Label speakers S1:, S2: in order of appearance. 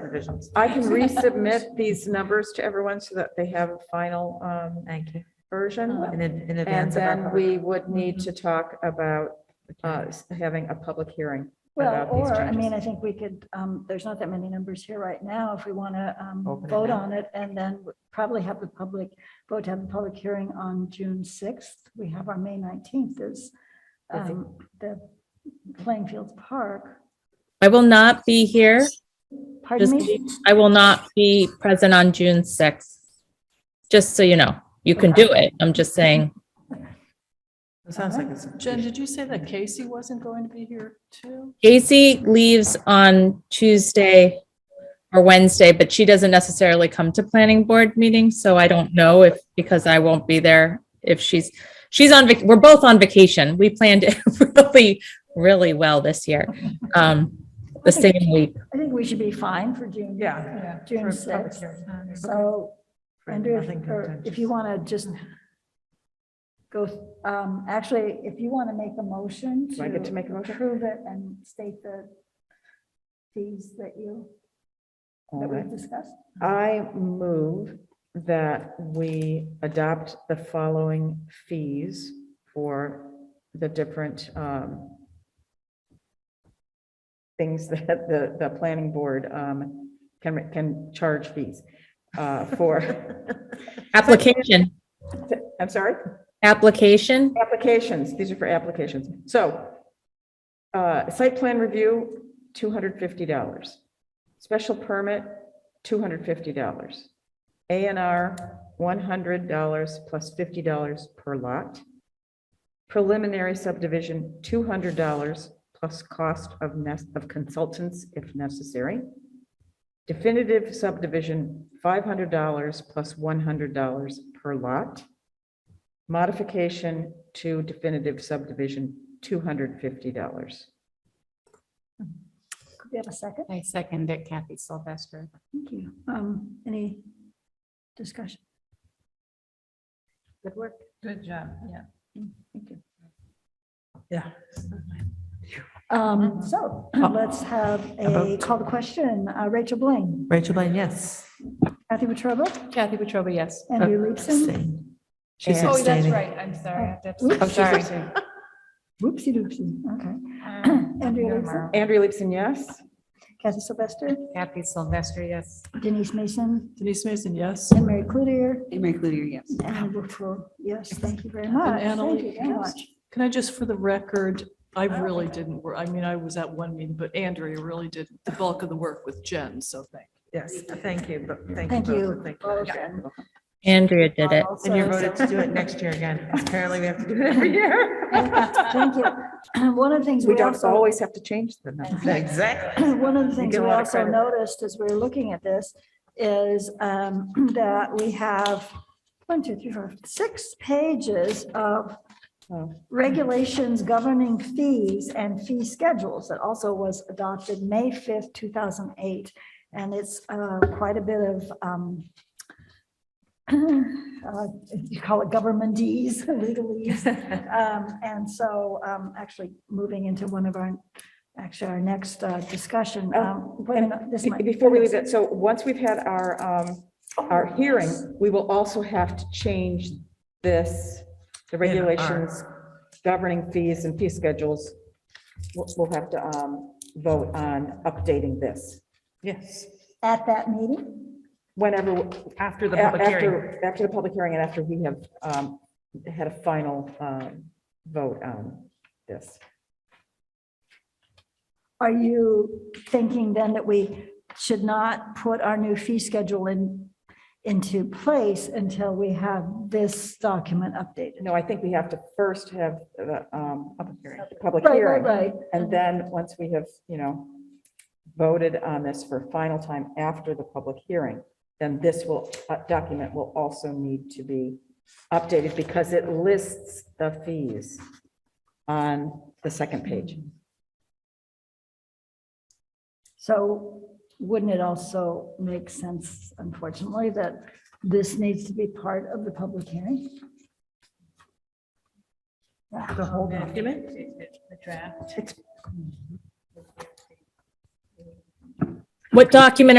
S1: subdivisions.
S2: I can resubmit these numbers to everyone so that they have a final um,
S1: Thank you.
S2: version.
S1: In, ad- in
S2: Uh-huh. And
S1: advance of our
S2: then
S1: public.
S2: we would need to talk about uh, s- having a public hearing.
S3: Well,
S2: about these
S3: or, I mean,
S2: changes.
S3: I think we could, um, there's not that many numbers here right now. If we want to
S1: Open it
S3: vote
S1: up.
S3: on it and then probably have the public, vote to have the public hearing on June 6th. We have our May 19th is
S1: Busy.
S3: um, the playing fields Park.
S4: I will not be here.
S3: Pardon
S4: Just,
S3: me?
S4: I will not be present on June 6th. Just so you know, you can do it. I'm just saying,
S1: It sounds like it's.
S5: Jen, did you say that Casey wasn't going to be here too?
S4: Casey leaves on Tuesday or Wednesday, but she doesn't necessarily come to planning board meetings, so I don't know if, because I won't be there, if she's, she's on, vac- we're both on vacation. We planned it really, really well this year. Um, the same week.
S3: I think we should be fine for June.
S1: Yeah.
S3: June 6th. So Andrew, if- or if you want to just
S2: Mm-hmm.
S3: go, um, actually, if you want to make a motion to.
S2: Do I get to make a motion?
S3: Approve it and state the fees that you, that we've discussed.
S2: I move that we adopt the following fees for the different um, things that the, the planning board um, can, can charge fees uh, for,
S4: Application,
S2: I'm sorry?
S4: application,
S2: Applications, these are for applications. So, uh, site plan review, two hundred fifty dollars. Special permit, two hundred fifty dollars. A and R, one hundred dollars plus fifty dollars per lot. Preliminary subdivision, two hundred dollars plus cost of nes- of consultants if necessary. Definitive subdivision, five hundred dollars plus one hundred dollars per lot. Modification to definitive subdivision, two hundred fifty dollars.
S3: Could we have a second?
S6: I second it, Kathy Sylvester.
S3: Thank you. Um, any discussion?
S6: Good work.
S5: Good job, yeah.
S3: Mm, Thank you.
S1: Yeah.
S6: Mm-hmm.
S3: Um, so let's have a call to question. Uh, Rachel Blaine,
S1: Rachel Blaine, yes.
S3: Kathy Petrova,
S6: Kathy Petrova, yes.
S3: Andrew Leibson.
S1: Abstain. She's
S2: And-
S6: Oh, that's
S1: abstaining.
S6: right. I'm sorry. I have to abstain.
S3: Oops.
S6: I'm sorry.
S3: Whoopsie doopsie. Okay.
S6: Um,
S3: Andrea
S6: Andrea
S3: Leibson?
S6: Murrow.
S2: Andrea Leibson, yes.
S3: Kathy Sylvester,
S6: Kathy Sylvester, yes.
S3: Denise Mason,
S5: Denise Mason, yes.
S3: and Mary Cludier.
S7: Mary Cludier, yes.
S3: And I look for, yes, thank you very much.
S5: Anna
S3: Thank
S5: Lee,
S3: you very
S5: yes.
S3: much.
S5: Can I just, for the record, I really didn't, wor- I mean, I was at one meeting, but Andrea really did the bulk of the work with Jen, so thank
S1: Yes, thank you, but thank you.
S3: Thank
S1: both,
S3: you.
S1: and Thank
S3: both,
S1: you.
S3: and
S4: Andrea did it.
S3: also-
S1: And you voted to do it next year again. Apparently we have to do it every year.
S3: Thank you. One of the things
S2: We
S3: we
S2: don't
S3: also,
S2: always have to change the number.
S1: Exactly.
S3: one of the
S2: You
S3: things
S2: get a
S3: we
S2: lot of
S3: also
S2: credit.
S3: noticed as we were looking at this is um, that we have one, two, three, four, six pages of
S2: Oh.
S3: regulations governing fees and fee schedules that also was adopted May 5th, 2008. And it's uh, quite a bit of, um, uh, you call it governmentese, legalese. Um, And so um, actually moving into one of our, actually our next uh, discussion.
S2: Oh,
S3: um, whether or
S2: And
S3: not this
S2: be-
S3: might-
S2: before we leave that, so once we've had our, um, our hearing, we will also have to change this, the regulations governing fees and fee schedules. We'll, we'll have to, um, vote on updating this
S1: Yes,
S3: At that meeting?
S2: whenever,
S1: after the public hearing.
S2: after, after the public hearing and after we have, um, had a final, um, vote on this.
S3: Are you thinking then that we should not put our new fee schedule in, into place until we have this document updated?
S2: No, I think we have to first have the, um, public hearing,
S3: Right, right, right.
S2: And then, once we have, you know, voted on this for a final time after the public hearing, then this will, uh, document will also need to be updated because it lists the fees on the second page.
S3: So wouldn't it also make sense, unfortunately, that this needs to be part of the public hearing?
S1: The whole document?
S4: What document